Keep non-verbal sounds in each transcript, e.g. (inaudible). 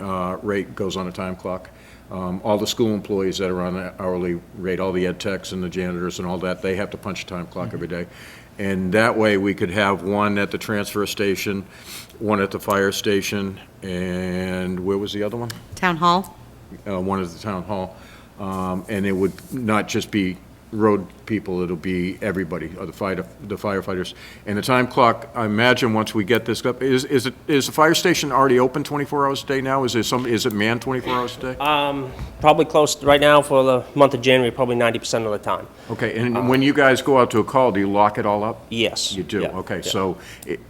uh, rate goes on a time clock. Um, All the school employees that are on an hourly rate, all the ed techs and the janitors and all that, they have to punch a time clock every day. And that way, we could have one at the transfer station, one at the fire station, and where was the other one? Town Hall? uh, one at the town hall. Um, And it would not just be road people, it'll be everybody, or the fire- the firefighters. And the time clock, I imagine, once we get this up, is, is it, is the fire station already open 24 hours a day now? Is there some, is it manned 24 hours a day? Uh, Probably close, right now for the month of January, probably 90% of the time. Okay, and when you guys go out to a call, do you lock it all up? Yes. You do, Yeah, okay, yeah. so, it-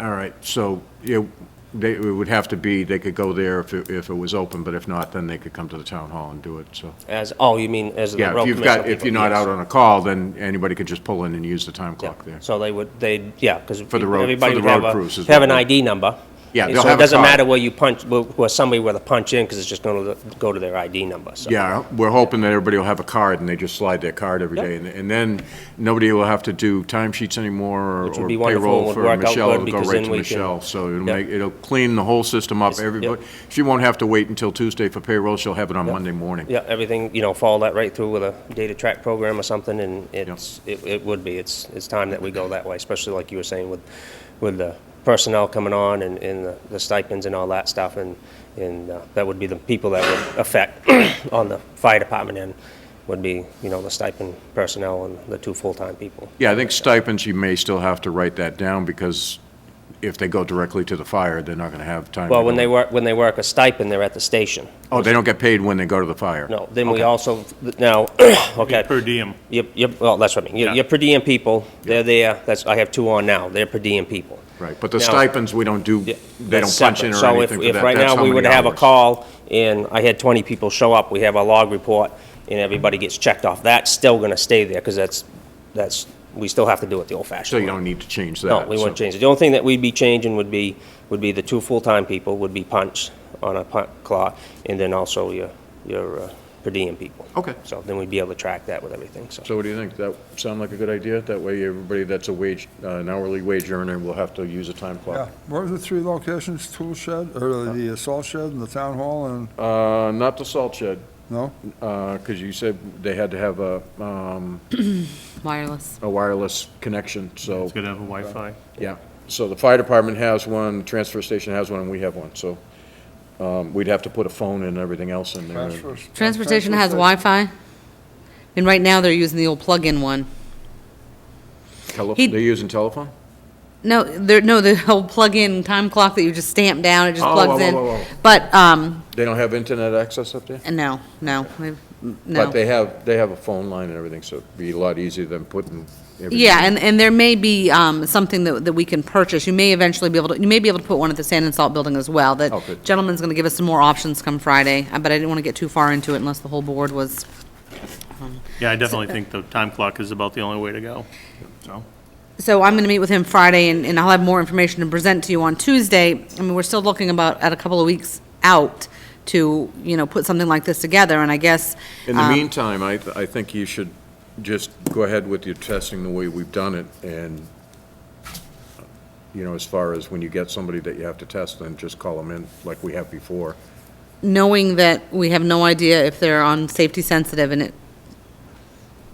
all right, so, you, they, it would have to be, they could go there if it, if it was open, but if not, then they could come to the town hall and do it, so. As, oh, you mean as the road Yeah, if commissioner? you've got, if people, you're not yes. out on a call, then anybody could just pull in and use the time Yeah. clock there. So they would, they, yeah, because. For the road- for the road crews is Have an what- ID number. Yeah, and they'll so have a It doesn't card. matter where you punch, where- where somebody where to punch in, because it's just going to go to their ID number, so. Yeah, we're hoping that everybody will have a card, and they just slide their card every Yep. day, and- and then nobody will have to do timesheets anymore, or Which would or be wonderful, payroll would for work out Michelle, good, it'll go because right then to we can- Michelle, so it'll Yep. make, it'll clean the whole system up, everybody, she won't have to wait until Tuesday for payroll, she'll have it on Monday morning. Yeah, everything, you know, follow that right through with a data track program or something, and it's, it, it would be, it's, it's time that we go that way, especially like you were saying with, with the personnel coming on and, and the- the stipends and all that stuff, and, and uh, that would be the people that would affect (coughs) on the fire department end, would be, you know, the stipend personnel and the two full-time people. Yeah, I think stipends, you may still have to write that down, because if they go directly to the fire, they're not gonna have time. to Well, when go- they work, when they work a stipend, they're at the station. Oh, they don't get paid when they go to the fire? No, then we also, now, (clears throat) okay. Per diem. Yep, yep, well, that's what I mean. Your, Yeah. your per diem people, they're there, that's, I have two on now, they're per diem people. Right, but the Now- stipends, we don't do, Yeah, they that's don't punch in separate. or anything for So if, that. if right That's now how we many would have a hours. call and I had twenty people show up, we have a log report and everybody gets checked off, that's still gonna stay there, because that's, that's, we still have to do it the old fashioned So way. you don't need to change that. No, we wouldn't change it. The only thing that we'd be changing would be, would be the two full-time people would be punched on a punt clock, and then also your, your uh, per diem people. Okay. So then we'd be able to track that with everything, so. So what do you think? That sound like a good idea? That way, everybody that's a wage, uh, an hourly wage earner will have to use a time Yeah, clock. what are the three locations, tool shed, or the assault shed and the town hall and, Uh, Not the salt shed, no? Uh, because you said they had to have a um, Wireless. a wireless connection, so, It's gonna have a Wi-Fi. yeah. So the fire department has one, the transfer station has one, and we have one, so um, we'd have to put a phone and everything else in there. Transfer- Transfer station has Oh, station. Wi-Fi, and right now they're using the old plug-in one. Tele- He- They're using telephone? No, there, no, the (laughs) old plug-in time clock that you just stamp down, it just Oh, plugs whoa, in. whoa, whoa, whoa. But, um, They don't have internet access up there? no, no, we've- no. But they have, they have a phone line and everything, so it'd be a lot easier than putting everything. Yeah, and, and there may be um, something that, that we can purchase. You may eventually be able to, you may be able to put one at the Sand and Salt Building as well. That Oh, good. gentleman's going to give us some more options come Friday, uh, but I didn't want to get too far into it unless the whole board was. Yeah, I definitely think the time clock is about the only way to go, so. So I'm going to meet with him Friday, and, and I'll have more information to present to you on Tuesday. I mean, we're still looking about, at a couple of weeks out to, you know, put something like this together, and I guess. In the um, meantime, I, th- I think you should just go ahead with your testing the way we've done it, and, you know, as far as when you get somebody that you have to test, then just call them in like we have before. Knowing that we have no idea if they're on safety sensitive, and it,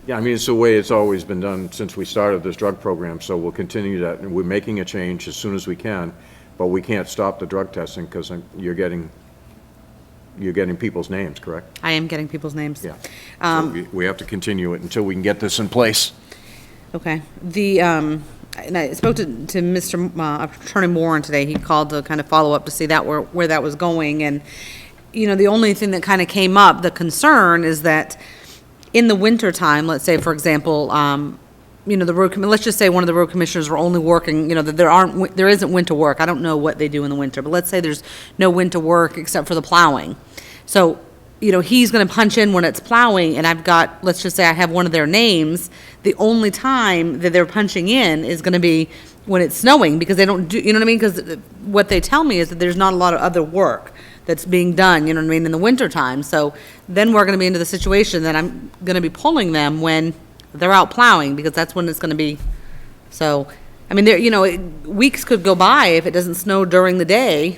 Yeah, I mean, it's the way it's always been done since we started this drug program, so we'll continue that, and we're making a change as soon as we can, but we can't stop the drug testing, because you're getting, you're getting people's names, correct? I am getting people's names. Yeah. So we- We have to continue it until we can get this in place. Okay. The, um, and I spoke to, to Mr. Ma- Attorney Warren today. He called to kind of follow up to see that where, where that was going. And, you know, the only thing that kind of came up, the concern is that in the wintertime, let's say, for example, um, you know, the road, commi- let's just say one of the road commissioners were only working, you know, that there aren't, win- there isn't winter work. I don't know what they do in the winter, but let's say there's no winter work except for the plowing. So, you know, he's gonna punch in when it's plowing, and I've got, let's just say I have one of their names, the only time that they're punching in is gonna be when it's snowing, because they don't do, you know what I mean? Because what they tell me is that there's not a lot of other work that's being done, you know what I mean, in the wintertime. So then we're gonna be into the situation that I'm gonna be pulling them when they're out plowing, because that's when it's gonna be, so, I mean, there, you know, it- weeks could go by if it doesn't snow during the day,